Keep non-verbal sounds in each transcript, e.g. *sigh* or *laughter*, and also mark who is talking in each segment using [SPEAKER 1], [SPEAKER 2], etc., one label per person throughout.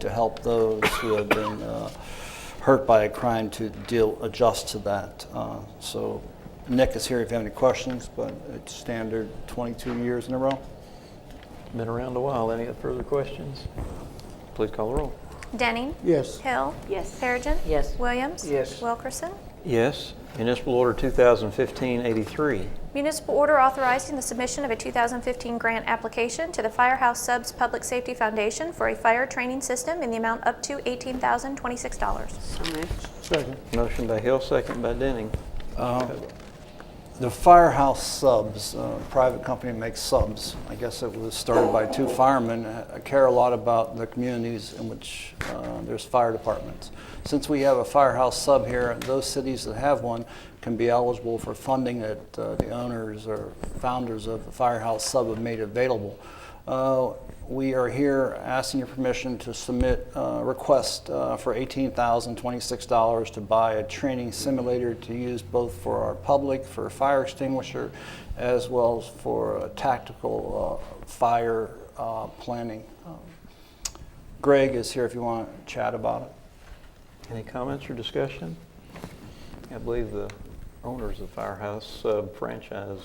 [SPEAKER 1] to help those who have been uh, hurt by a crime to deal, adjust to that. Uh, So Nick is here if you have any questions, but it's standard 22 years in a row.
[SPEAKER 2] Been around a while. Any further questions? Please call the roll.
[SPEAKER 3] Denning.
[SPEAKER 4] Yes.
[SPEAKER 3] Hill.
[SPEAKER 5] Yes.
[SPEAKER 3] Perigin.
[SPEAKER 5] Yes.
[SPEAKER 3] Williams.
[SPEAKER 4] Yes.
[SPEAKER 3] Wilkerson.
[SPEAKER 2] Yes. Municipal Order 2015-83.
[SPEAKER 3] Municipal order authorizing the submission of a 2015 grant application to the Firehouse Subs Public Safety Foundation for a fire training system in the amount up to $18,026.
[SPEAKER 5] So moved.
[SPEAKER 4] Second.
[SPEAKER 2] Motion by Hill, second by Denning.
[SPEAKER 1] The Firehouse Subs, uh, private company makes subs. I guess it was started by two firemen. I care a lot about the communities in which uh, there's fire departments. Since we have a firehouse sub here, those cities that have one can be eligible for funding that uh, the owners or founders of the firehouse sub have made available. Uh, We are here asking your permission to submit a request uh, for $18,026 to buy a training simulator to use both for our public, for fire extinguisher, as well as for uh, tactical uh, fire uh, planning. Um, Greg is here if you want to chat about it.
[SPEAKER 2] Any comments or discussion? I believe the owners of Firehouse uh, franchise,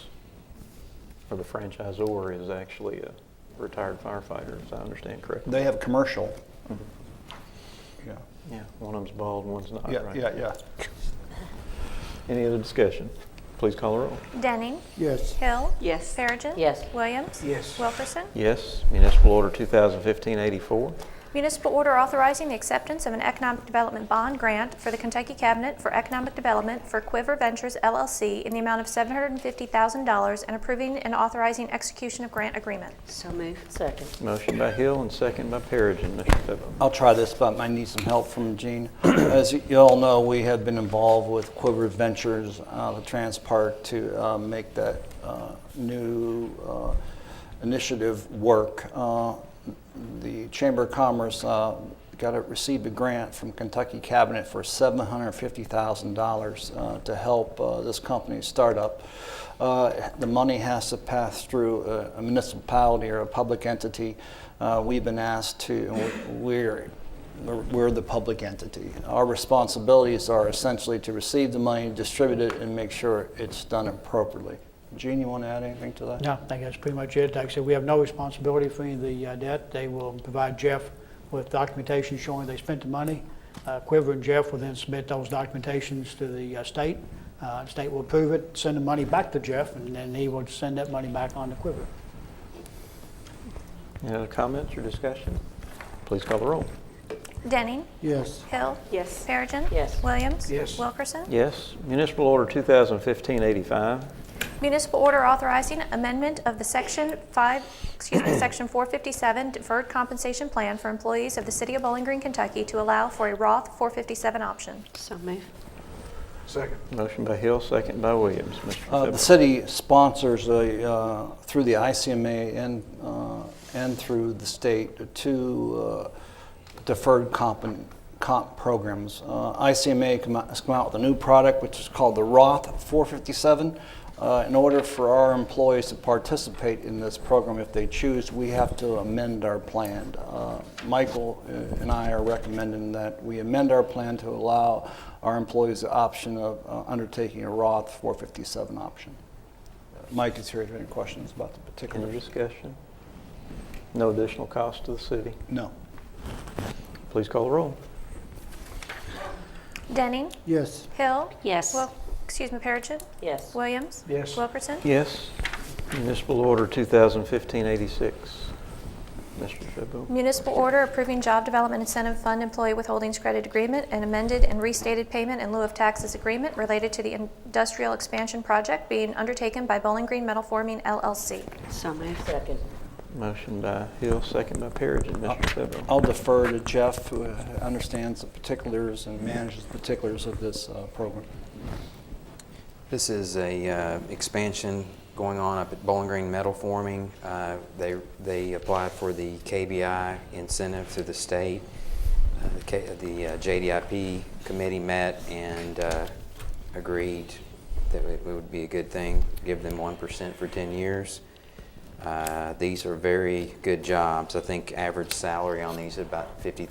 [SPEAKER 2] or the franchisor is actually a retired firefighter, if I understand correctly.
[SPEAKER 1] They have commercial. Yeah,
[SPEAKER 2] Yeah, one of them's bald, one's not,
[SPEAKER 1] yeah,
[SPEAKER 2] right?
[SPEAKER 1] yeah, yeah.
[SPEAKER 2] Any other discussion? Please call the roll.
[SPEAKER 3] Denning.
[SPEAKER 4] Yes.
[SPEAKER 3] Hill.
[SPEAKER 5] Yes.
[SPEAKER 3] Perigin.
[SPEAKER 5] Yes.
[SPEAKER 3] Williams.
[SPEAKER 4] Yes.
[SPEAKER 3] Wilkerson.
[SPEAKER 2] Yes. Municipal Order 2015-84.
[SPEAKER 3] Municipal order authorizing the acceptance of an economic development bond grant for the Kentucky Cabinet for Economic Development for Quiver Ventures LLC in the amount of $750,000 and approving and authorizing execution of grant agreement.
[SPEAKER 5] So moved. Second.
[SPEAKER 2] Motion by Hill and second by Perigin. Mr. Febo.
[SPEAKER 1] I'll try this, but I need some help from Gene. *clears throat* As you all know, we have been involved with Quiver Ventures, uh, the Trans Park, to uh, make that uh, new uh, initiative work. Uh, The Chamber of Commerce uh, got a, received a grant from Kentucky Cabinet for $750,000 uh, to help uh, this company start up. Uh, The money has to pass through a- a municipality or a public entity. Uh, We've been asked to, and we're, we're- we're the public entity. Our responsibilities are essentially to receive the money, distribute it, and make sure it's done appropriately. Gene, you want to add anything to that?
[SPEAKER 6] No, I think that's pretty much it. Like I said, we have no responsibility for any of the uh, debt. They will provide Jeff with documentation showing they spent the money. Uh, Quiver and Jeff will then submit those documentations to the uh, state. Uh, State will approve it, send the money back to Jeff, and then he will send that money back on to Quiver.
[SPEAKER 2] Any other comments or discussion? Please call the roll.
[SPEAKER 3] Denning.
[SPEAKER 4] Yes.
[SPEAKER 3] Hill.
[SPEAKER 5] Yes.
[SPEAKER 3] Perigin.
[SPEAKER 5] Yes.
[SPEAKER 3] Williams.
[SPEAKER 4] Yes.
[SPEAKER 3] Wilkerson.
[SPEAKER 2] Yes. Municipal Order 2015-85.
[SPEAKER 3] Municipal order authorizing amendment of the Section 5, excuse me, *coughs* Section 457 Deferred Compensation Plan for employees of the City of Bowling Green, Kentucky to allow for a Roth 457 option.
[SPEAKER 5] So moved.
[SPEAKER 4] Second.
[SPEAKER 2] Motion by Hill, second by Williams. Mr.
[SPEAKER 1] Uh, The
[SPEAKER 2] Febo.
[SPEAKER 1] city sponsors, a, uh, through the ICMA and, uh, and through the state, two uh, deferred comp, and- comp programs. Uh, ICMA come out- has come out with a new product, which is called the Roth 457. Uh, In order for our employees to participate in this program, if they choose, we have to amend our plan. Uh, Michael uh, and I are recommending that we amend our plan to allow our employees the option of uh, undertaking a Roth 457 option. Uh, Mike is here if you have any questions about the
[SPEAKER 2] Any
[SPEAKER 1] particulars.
[SPEAKER 2] discussion? No additional cost to the city.
[SPEAKER 1] No.
[SPEAKER 2] Please call the roll.
[SPEAKER 3] Denning.
[SPEAKER 4] Yes.
[SPEAKER 3] Hill.
[SPEAKER 5] Yes.
[SPEAKER 3] Well, excuse me, Perigin.
[SPEAKER 5] Yes.
[SPEAKER 3] Williams.
[SPEAKER 4] Yes.
[SPEAKER 3] Wilkerson.
[SPEAKER 2] Yes. Municipal Order 2015-86. Mr. Febo.
[SPEAKER 3] Municipal order approving job development incentive fund employee withholdings credit agreement and amended and restated payment in lieu of taxes agreement related to the industrial expansion project being undertaken by Bowling Green Metal Forming LLC.
[SPEAKER 5] So moved. Second.
[SPEAKER 2] Motion by Hill, second by Perigin. Mr. Febo.
[SPEAKER 1] Uh, I'll defer to Jeff, who uh, understands the particulars and manages the particulars of this uh, program.
[SPEAKER 7] This is a uh, expansion going on up at Bowling Green Metal Forming. Uh, They they applied for the KBI incentive through the state. Uh, The K- the uh, JDIP committee met and uh, agreed that it would be a good thing, give them 1% for 10 years. Uh, These are very good jobs. I think average salary on these is about $50,000